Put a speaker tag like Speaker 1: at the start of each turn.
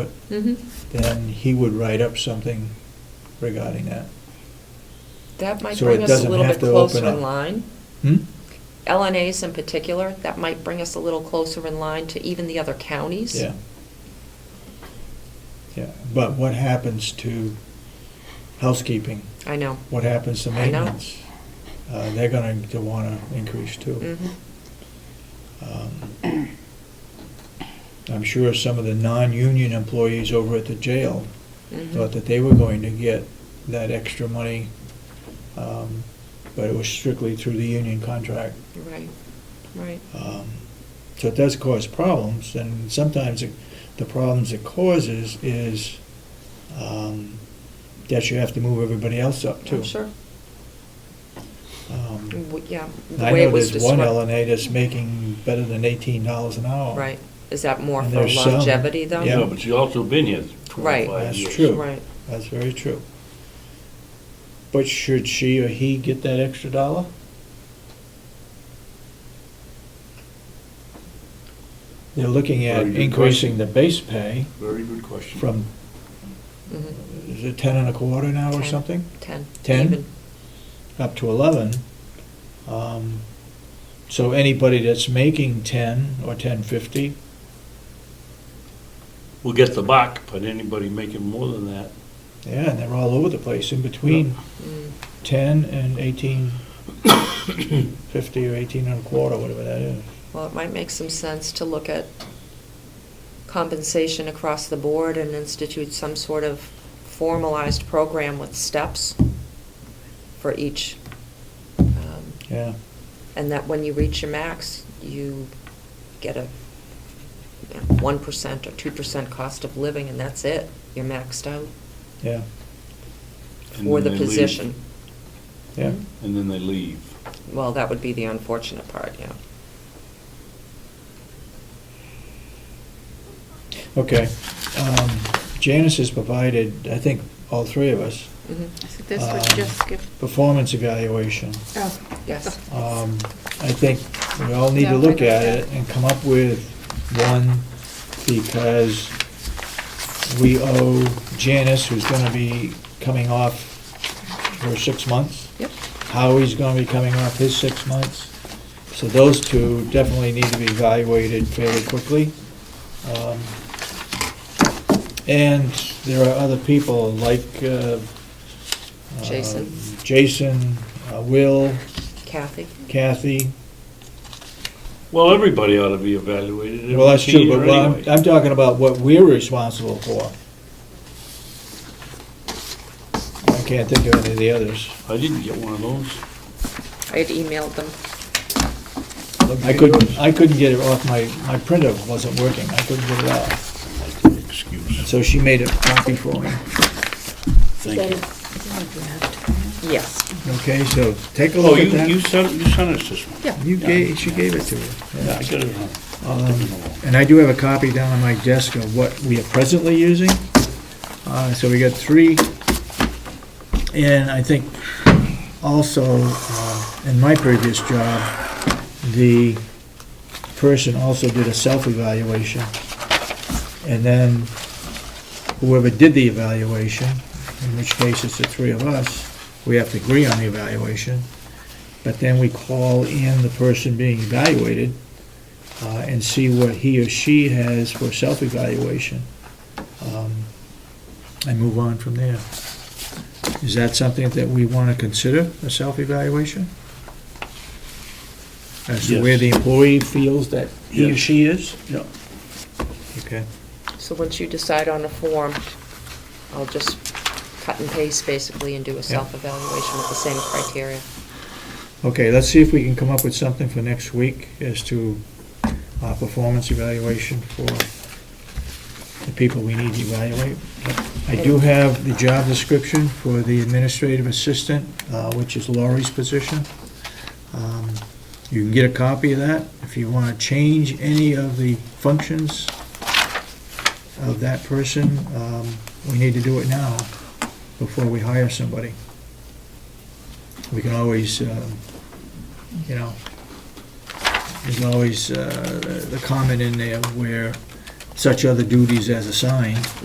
Speaker 1: it, then he would write up something regarding that.
Speaker 2: That might
Speaker 1: So it
Speaker 2: bring us a
Speaker 1: doesn't
Speaker 2: little
Speaker 1: have
Speaker 2: bit
Speaker 1: to open
Speaker 2: closer in
Speaker 1: up.
Speaker 2: line.
Speaker 1: Hmm?
Speaker 2: LNAs in particular, that might bring us a little closer in line to even the other counties.
Speaker 1: Yeah. Yeah, but what happens to housekeeping?
Speaker 2: I know.
Speaker 1: What happens to
Speaker 2: I know.
Speaker 1: maintenance? Uh, they're gonna to wanna increase too.
Speaker 2: Mhm. Mm.
Speaker 1: Um, I'm sure some of the non-union employees over at the jail
Speaker 2: Mhm.
Speaker 1: thought that they were going to get that extra money, um, but it was strictly through the union contract.
Speaker 2: Right, Mm-hmm. right.
Speaker 1: Um, So it does cause problems, and sometimes it- the problems it causes is um, that you have to move everybody else up too.
Speaker 2: I'm sure.
Speaker 1: Um,
Speaker 2: W- Yeah. the
Speaker 1: I
Speaker 2: way
Speaker 1: know
Speaker 2: it was
Speaker 1: there's one
Speaker 2: described-
Speaker 1: LNA that's making better than eighteen dollars an hour.
Speaker 2: Right. Is that more
Speaker 1: And
Speaker 2: for
Speaker 1: there's some-
Speaker 2: longevity though?
Speaker 1: Yeah.
Speaker 3: Yeah, but you also been here
Speaker 2: Right.
Speaker 3: twenty-five
Speaker 1: That's
Speaker 3: years.
Speaker 1: true.
Speaker 2: Right.
Speaker 1: That's very true. But should she or he get that extra dollar? They're looking at
Speaker 3: Very good
Speaker 1: increasing
Speaker 3: question.
Speaker 1: the base pay
Speaker 3: Very good question.
Speaker 1: from
Speaker 2: Mhm.
Speaker 1: is it ten and a quarter now or
Speaker 2: Ten.
Speaker 1: something?
Speaker 2: Ten.
Speaker 1: Ten?
Speaker 2: Even.
Speaker 1: Up to eleven. Um, So anybody that's making ten or ten fifty,
Speaker 3: We'll get the buck, but anybody making more than that,
Speaker 1: yeah, and they're all over the place, in between
Speaker 2: Mm.
Speaker 1: ten and eighteen fifty or eighteen and a quarter, whatever that is.
Speaker 2: Well, it might make some sense to look at compensation across the board and institute some sort of formalized program with steps for each. um,
Speaker 1: Yeah,
Speaker 2: And that when you reach your max, you get a one percent or two percent cost of living, and that's it. You're maxed out
Speaker 1: yeah,
Speaker 3: And
Speaker 2: for the
Speaker 3: then they leave.
Speaker 2: position.
Speaker 1: yeah.
Speaker 2: Mm.
Speaker 3: and then they leave.
Speaker 2: Well, that would be the unfortunate part, yeah.
Speaker 1: Okay. Um, Janice has provided, I think, all three of us,
Speaker 2: Mhm.
Speaker 4: So this would
Speaker 1: Um,
Speaker 4: just give,
Speaker 1: performance evaluation.
Speaker 4: oh.
Speaker 2: Yes.
Speaker 1: Um, I think we all need
Speaker 4: Yeah,
Speaker 1: to
Speaker 4: I
Speaker 1: look
Speaker 4: know
Speaker 1: at
Speaker 4: that.
Speaker 1: it and come up with one, because we owe Janice, who's gonna be coming off her six months.
Speaker 2: Yep.
Speaker 1: Howie's gonna be coming off his six months. So those two definitely need to be evaluated fairly quickly. Um, And there are other people like, uh, uh,
Speaker 2: Jason.
Speaker 1: Jason, uh, Will,
Speaker 2: Kathy?
Speaker 1: Kathy.
Speaker 3: Well, everybody ought to be evaluated every
Speaker 1: Well, that's true,
Speaker 3: year
Speaker 1: but what I'm,
Speaker 3: anyway.
Speaker 1: I'm talking about what we're responsible for. I can't think of any of the others.
Speaker 3: I didn't get one of those.
Speaker 2: I had emailed them.
Speaker 1: I couldn't, I couldn't get it off my, my printer wasn't working, I couldn't get it off.
Speaker 3: Excuse.
Speaker 1: So she made a copy for me.
Speaker 3: Thank you.
Speaker 2: Yes.
Speaker 1: Okay, so take a
Speaker 3: Oh,
Speaker 1: look
Speaker 3: you,
Speaker 1: at
Speaker 3: you
Speaker 1: that.
Speaker 3: sent, you sent us this one.
Speaker 1: You gave, she gave it to you.
Speaker 3: Yeah, I got it. wrong.
Speaker 1: Um, And I do have a copy down on my desk of what we are presently using. Uh, So we got three. And I think also, uh, in my previous job, the person also did a self-evaluation. And then whoever did the evaluation, in which case it's the three of us, we have to agree on the evaluation. But then we call in the person being evaluated uh, and see what he or she has for self-evaluation. Um, And move on from there. Is that something that we want to consider, a self-evaluation? As to where
Speaker 3: Yes.
Speaker 1: the employee feels that he or
Speaker 3: Yes.
Speaker 1: she is?
Speaker 3: Yeah.
Speaker 1: Okay.
Speaker 2: So once you decide on a form, I'll just cut and paste basically and do a self-evaluation with the same criteria.
Speaker 1: Okay, let's see if we can come up with something for next week as to our performance evaluation for the people we need to evaluate. I do have the job description for the administrative assistant, uh, which is Laurie's position. Um, You can get a copy of that. If you want to change any of the functions of that person, um, we need to do it now before we hire somebody. We can always, um, you know, there's always uh, the comment in there where such other duties as assigned.